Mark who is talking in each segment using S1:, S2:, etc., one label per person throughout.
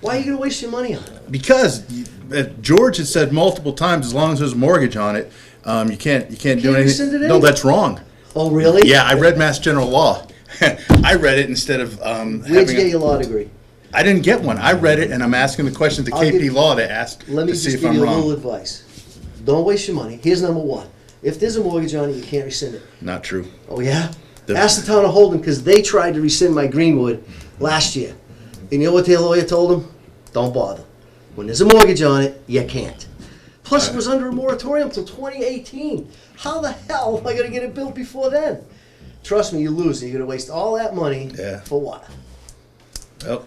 S1: Why are you going to waste your money on it?
S2: because you- uh, George had said multiple times, as long as there's a mortgage on it, um, you can't you can't, do
S1: Can't
S2: anything.
S1: rescind it
S2: no,
S1: anyway.
S2: that's wrong.
S1: Oh, really?
S2: Yeah, I read Mass General Law. I read it instead of um,
S1: Where'd
S2: having.
S1: you get
S2: a-
S1: your law degree?
S2: I didn't get one. I read it, and I'm asking the question to
S1: I'll
S2: KP
S1: give-
S2: Law to ask
S1: Let me
S2: to
S1: just
S2: see
S1: give
S2: if
S1: you a
S2: I'm wrong.
S1: little advice. Don't waste your money. Here's number one. If there's a mortgage on it, you can't rescind it.
S2: Not true.
S1: Oh yeah.
S2: The-
S1: Ask the town of Holden because they tried to rescind my Greenwood last year, and you know what their lawyer told them? Don't bother. When there's a mortgage on it, you can't. Plus, it was under a moratorium till 2018. How the hell am I going to get it built before then? Trust me, you lose. You're going to waste all that money
S2: Yeah.
S1: for what?
S2: Well, Oh,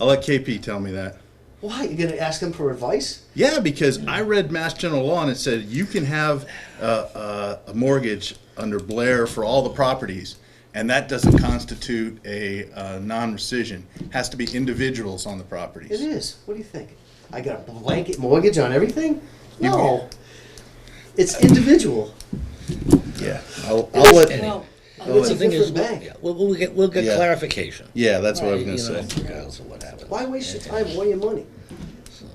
S2: I'll let KP tell me that.
S1: Why? You're going to ask them for advice?
S2: Yeah, because I read Mass General Law and it said you can have uh, uh, a mortgage under Blair for all the properties, and that doesn't constitute a uh, non-rescission. Has to be individuals on the
S1: It
S2: properties.
S1: is. What do you think? I got a blanket mortgage on everything?
S2: You-
S1: No. It's individual.
S2: Yeah, I'll, I'll let.
S3: Well,
S1: It's
S3: The
S1: a
S3: thing is,
S1: different
S3: we'll,
S1: bank.
S3: yeah, we'll- we'll get, we'll get
S2: Yeah.
S3: clarification.
S2: Yeah, that's what I was
S3: You
S2: gonna
S3: know,
S2: say.
S3: regardless of what happens.
S1: Why waste your time or your money?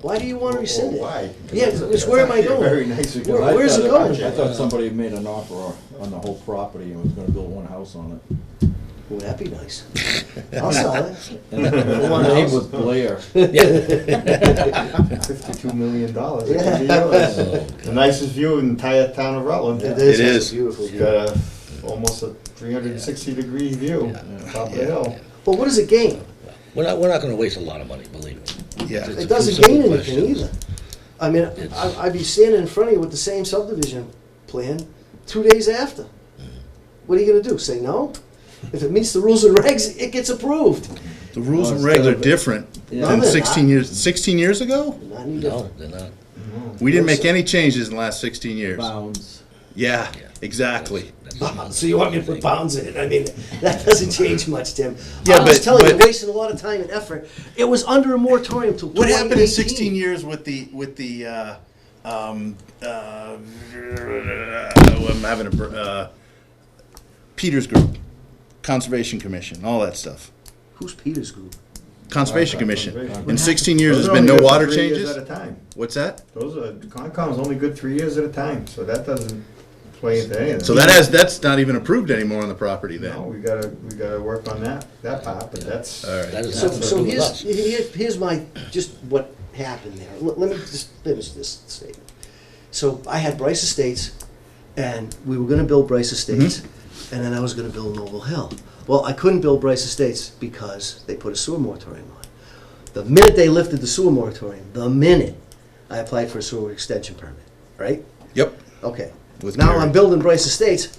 S1: Why do you want to rescind it?
S4: why?
S1: Yeah, 'cause it's where am I
S4: That's actually a
S1: going?
S4: very nice
S1: Where-
S4: example.
S1: where's it
S4: I thought-
S1: going?
S4: I thought somebody had made an offer on the whole property and was gonna build one house on it.
S1: Well, that'd be nice. I'll sell it.
S4: And the name was Blair.
S5: Fifty-two million dollars.
S1: Yeah.
S5: The nicest view in the entire town of Rutland.
S2: is. It
S1: It's a Beautiful.
S5: You've got a, almost a three hundred and sixty degree view, on top of the hill.
S1: But what does it gain?
S3: We're not, we're not gonna waste a lot of money, believe me.
S2: Yeah,
S3: It's
S1: It
S3: a
S1: doesn't
S3: few simple
S1: gain anything
S3: questions.
S1: either. I mean, I- I'd be standing in front of you with the same subdivision plan two days after.
S2: Mm-hmm.
S1: What are you gonna do, say no? If it meets the rules and regs, it gets approved.
S2: the rules and
S4: Well, instead
S2: regs are
S4: of-
S2: different
S4: Oh, Yeah.
S2: than
S1: No, they're
S2: 16
S1: not.
S2: years. 16 years ago,
S1: Not any
S3: No,
S1: different.
S3: they're not.
S2: we didn't make any changes in the last 16 years.
S4: Bounds.
S2: Yeah, exactly.
S3: That's another
S1: Bounds, So you want me to put bounds in it? I mean, that doesn't change much, Tim.
S2: Yeah,
S1: I was
S2: but-
S1: telling you,
S2: but-
S1: wasting a lot of time and effort. It was under a moratorium till
S2: What happened in 16
S1: 2018.
S2: years with the with the? Uh, um, uh, oh, I'm having a br- uh, Peters Group, Conservation Commission, all that stuff.
S1: Who's Peter's group?
S2: Conservation Commission.
S5: Conservation.
S2: In 16 years,
S5: Those
S2: there's
S5: are
S2: been
S5: only
S2: no
S5: good for
S2: water
S5: three years At a
S2: changes.
S5: time.
S2: What's that?
S5: Those are, Concom's only good three years at a time, so that doesn't play into anything.
S2: So that has that's not even approved anymore on the property then.
S5: No, we gotta, we gotta work on that, that part, but that's.
S2: All right.
S3: That is
S1: So,
S3: nothing to do
S1: so
S3: with
S1: here's,
S3: us.
S1: here- here's my, just what happened there. Let, let me just finish this statement. So I had Bryce Estates, and we were gonna build Bryce Estates,
S2: Mm-hmm.
S1: and then I was gonna build Noble Hill. Well, I couldn't build Bryce Estates because they put a sewer moratorium on. The minute they lifted the sewer moratorium, the minute, I applied for a sewer extension permit, right?
S2: Yep.
S1: Okay.
S2: With
S1: now
S2: Mary.
S1: I'm building Bryce Estates.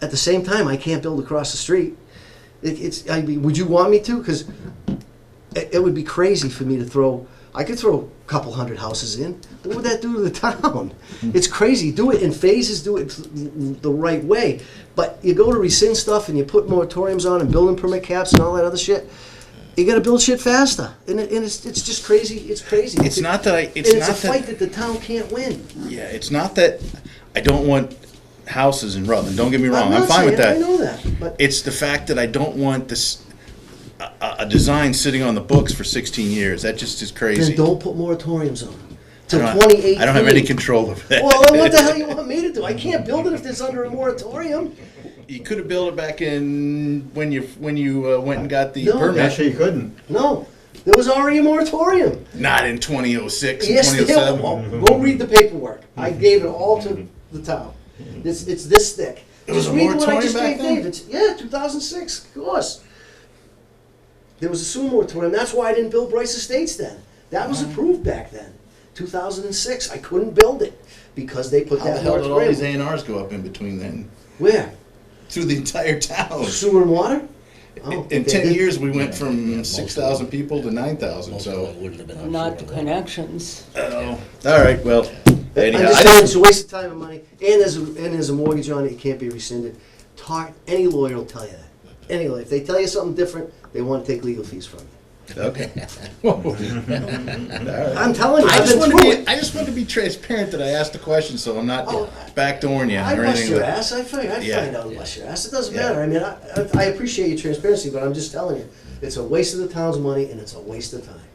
S1: At the same time, I can't build across the street. It, it's. I mean, would you want me to? Because it, it would be crazy for me to throw. I could throw a couple hundred houses in. What would that do to the town? it's crazy. Do it in phases. Do it the right way. But you go to rescind stuff and you put moratoriums on and building permit caps and all that other shit. You got to build shit faster, and, it, and it's it's just crazy. It's crazy.
S2: It's not that I. It's,
S1: and it's
S2: not
S1: a
S2: that.
S1: fight that the town can't win.
S2: Yeah, it's not that. I don't want houses in Rutland. Don't get me wrong. I'm,
S1: not
S2: fine with
S1: saying-
S2: that.
S1: I know that, but
S2: It's the fact that I don't want this a, a- a design sitting on the books for 16 years. That just is crazy.
S1: then don't put moratoriums on them.
S2: I
S1: Till
S2: don't-
S1: 2018.
S2: I don't have any control over that.
S1: Well, then what the hell you want me to do? I can't build it if it's under a moratorium.
S2: you could have built it back in when you when you uh, went and got the
S1: No.
S2: permit.
S5: Actually, you couldn't.
S1: No, there was already a moratorium.
S2: Not in 2006 and
S1: Yes, they
S2: 2007.
S1: will. Go read the paperwork. I
S2: Mm-hmm.
S1: gave it all to the town. It's, it's this thick.
S2: was
S1: Just
S2: a
S1: read what I
S2: moratorium
S1: just
S2: back
S1: gave
S2: then?
S1: David. Yeah, two thousand six, of course. There was a sewer moratorium. That's why I didn't build Bryce Estates then. That
S2: Mm-hmm.
S1: was approved back then. Two thousand and six, I couldn't build it because they put
S2: How the
S1: that
S2: hell did all these
S1: moratorium.
S2: A&Rs go up in between then?
S1: Where?
S2: Through the entire town.
S1: Sewer and water? I don't
S2: In
S1: think Oh, they
S2: 10
S1: did.
S2: years, we went
S3: Yeah,
S2: from
S3: most of
S2: 6,000 people to 9,000,
S3: Most of
S2: so.
S3: it wouldn't have been on
S6: Not the
S3: shore.
S6: connections.
S2: Oh, all right, well, anyhow.
S1: I'm just
S2: I
S1: saying,
S2: don't-
S1: it's a waste of time and money, and there's, a- and there's a mortgage on it, it can't be rescinded. Talk, any lawyer will tell you that. Any lawyer, if they tell you something different, they wanna take legal fees from you.
S2: Okay. Whoa.
S1: I'm telling you,
S2: I
S1: I've
S2: just
S1: been
S2: want to
S1: through it.
S2: be, I just want to be transparent that I asked the question, so I'm not
S1: Oh,
S2: backdooring you
S1: I
S2: or
S1: bust
S2: anything.
S1: your
S2: like-
S1: ass, I find, I
S2: Yeah.
S1: find out bust your ass, it doesn't
S2: Yeah.
S1: matter, I mean, I, I- I appreciate your transparency, but I'm just telling you, it's a waste of the town's money and it's a waste of time.